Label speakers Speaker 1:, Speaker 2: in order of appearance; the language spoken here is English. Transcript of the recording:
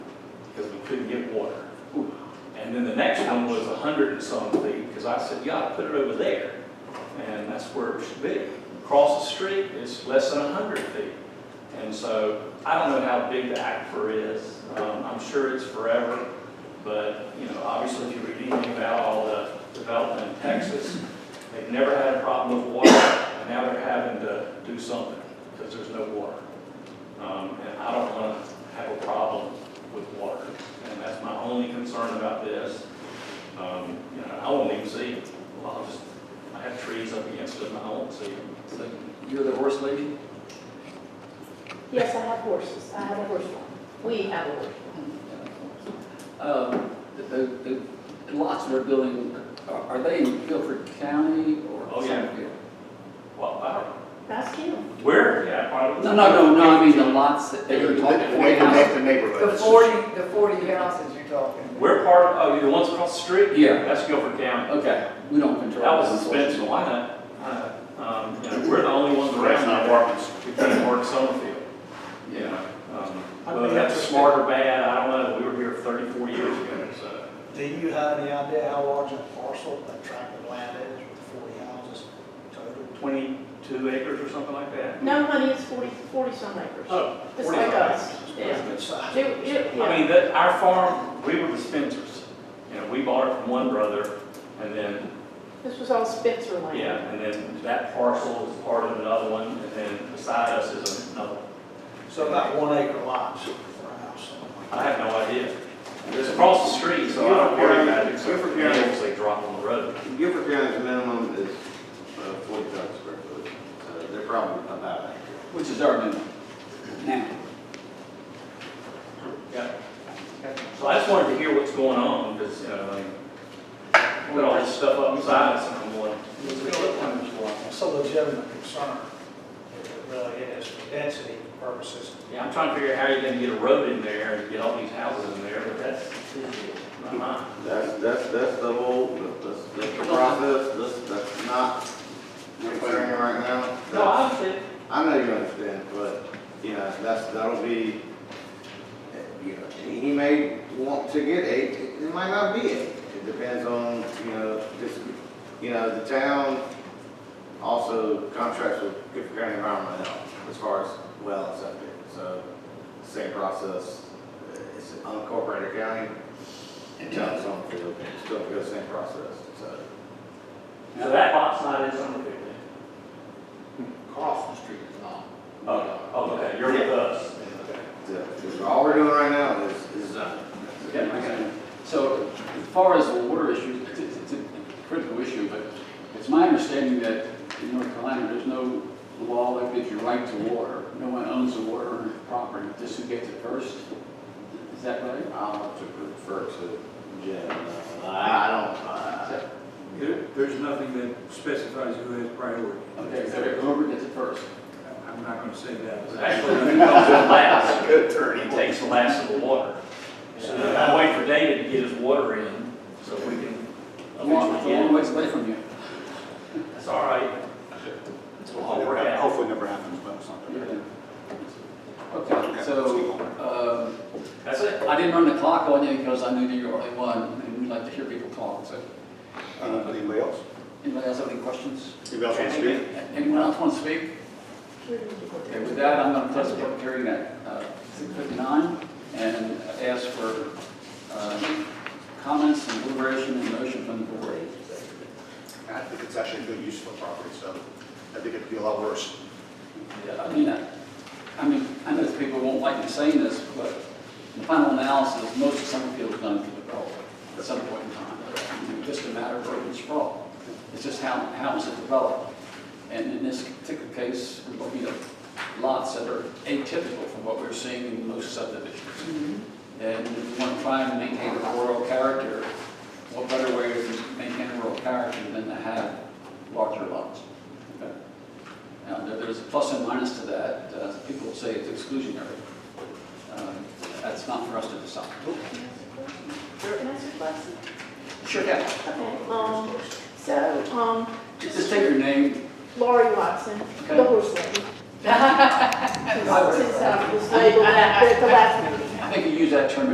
Speaker 1: couldn't get water. And then the next one was a hundred and something, because I said, you ought to put it over there. And that's where it should be. Across the street, it's less than a hundred feet. And so I don't know how big the aquifer is. Um, I'm sure it's forever. But, you know, obviously if you read anything about all the development in Texas, they've never had a problem with water. And now they're having to do something because there's no water. Um, and I don't want to have a problem with water. And that's my only concern about this. Um, you know, I won't even see it. Well, I'll just, I have trees up against it and I won't see it.
Speaker 2: So You're the horse lady?
Speaker 3: Yes, I have horses. I have a horse farm. We have a horse farm.
Speaker 2: Um, The the- the lots we're building, are are they in Guilford County or?
Speaker 1: Oh, yeah.
Speaker 2: Summerfield?
Speaker 1: Well, I
Speaker 3: That's you.
Speaker 1: don't, where? Yeah, probably.
Speaker 2: No, no, no, no, I mean the lots that they were talking about.
Speaker 4: They connect the
Speaker 5: The
Speaker 4: neighborhoods.
Speaker 5: forty, the forty houses you're talking about.
Speaker 1: We're part of, oh, the ones across the street?
Speaker 2: Yeah.
Speaker 1: That's Guilford County.
Speaker 2: Okay, we don't control.
Speaker 1: That was
Speaker 2: those,
Speaker 1: in Spencerville, I know. I know. Um, you know, we're the only ones
Speaker 4: That's
Speaker 1: around that
Speaker 4: not apartments.
Speaker 1: who can work Summerfield.
Speaker 2: unfortunately.
Speaker 1: You know,
Speaker 2: Yeah.
Speaker 1: um,
Speaker 6: I
Speaker 1: Whether
Speaker 6: think
Speaker 1: that's
Speaker 6: that's-
Speaker 1: smart or bad, I don't know. We were here 34 years ago, uh, so.
Speaker 6: Do you have any idea how large a parcel, a tract of land is with forty houses total?
Speaker 1: 22 acres or something like that?
Speaker 3: No, honey, it's 40, 40 some acres.
Speaker 1: Oh,
Speaker 3: Just
Speaker 1: 40
Speaker 3: like
Speaker 1: acres.
Speaker 3: us.
Speaker 6: That's
Speaker 3: Yeah.
Speaker 6: a good size.
Speaker 3: You- you-
Speaker 1: I
Speaker 3: yeah.
Speaker 1: mean, that, our farm, we were dispensers. You know, we bought it from one brother, and then,
Speaker 3: This was all Spencer land.
Speaker 1: yeah, and then that parcel is part of another one, and then beside us is another. one.
Speaker 6: So about one acre lots for a house, something like
Speaker 1: I have no idea. It's across the street, so I don't worry about it, except for the animals they drop on the road.
Speaker 7: Guilford County's minimum is uh, 40,000 square foot, so they're probably about that.
Speaker 2: Which is our minimum now.
Speaker 1: Yeah. So I just wanted to hear what's going on, because, you know, like, put all this stuff up beside us, and I'm going, what's it gonna look like?
Speaker 6: that. It's a legitimate concern, it really is, for density purposes.
Speaker 1: Yeah, I'm trying to figure out how you're gonna get a road in there and get all these houses in there, but that's not mine.
Speaker 7: That's, that's, that's the whole, that's, that's the process, that's, that's not concern right now.
Speaker 1: No, I understand.
Speaker 7: I know you understand, but, you know, that's, that'll be, you know, he may want to get eight, it might not be eight. It depends on, you know, this, you know, the town also contracts with Gifford County Environmental Health as far as well and septic. So, same process, it's an unincorporated county, and town's on the field, still go same process, so.
Speaker 1: So that lot's not in Somerville
Speaker 2: Across the street is not.
Speaker 1: Oh, okay, you're with us.
Speaker 7: so All we're doing right now is, is uh, zoning.
Speaker 2: Yeah, I got it. So as far as the water issue, it's, it's it's a critical issue, but it's my understanding that in North Carolina, there's no law that gives you right to water. No one owns the water on their property, just who gets it first. Is that right?
Speaker 7: I'll have to refer to Jen. Uh, I don't,
Speaker 2: Is
Speaker 7: uh,
Speaker 2: that-
Speaker 8: There- There's nothing that specifies who has priority.
Speaker 2: Okay, so whoever gets it first.
Speaker 8: I'm not gonna say that. but-
Speaker 1: Actually, who comes in last? Good turn. He takes the last of the water. So I wait for David to get his water in, so we can
Speaker 2: It's a long it's a
Speaker 1: eventually
Speaker 2: long
Speaker 1: get
Speaker 2: ways away from you.
Speaker 1: it. It's all right. We'll all work out.
Speaker 4: Hopefully never happens, but it's not.
Speaker 2: Yeah. Okay, so, um,
Speaker 1: That's it.
Speaker 2: I didn't run the clock on you because I knew that you were only one, and we like to hear people talk, so.
Speaker 4: Uh, Anybody else?
Speaker 2: Anybody else have any questions?
Speaker 4: Anybody else want to speak?
Speaker 2: Anyone else want to speak? Okay, with that, I'm going to close the public hearing at uh, 6:59 and ask for um, comments and deliberation and motion from the board.
Speaker 4: I think it's actually a good use for property, so I think it'd be a lot worse.
Speaker 2: Yeah, I mean, I I mean, I know people won't like me saying this, but in the final analysis, most of Summerfield is done for the borough at some point in time. It's Just a matter of urban sprawl. It's just how, how is it developed? And in this particular case, we're looking at lots that are atypical from what we're seeing in most subdivisions. And if you want to try and maintain a rural character, what better way to maintain a rural character than to have larger lots? Okay. Now, there- there's a plus and minus to that. Uh, People say it's exclusionary. Um, That's not for us to decide.
Speaker 3: Can I ask a question?
Speaker 2: Sure, yeah.
Speaker 3: Okay, um, so, um,
Speaker 2: Just take your name.
Speaker 3: Lori Watson, the
Speaker 2: Okay.
Speaker 3: horse lady. Since
Speaker 2: I
Speaker 3: I was labeled at the last meeting.
Speaker 2: think you use that term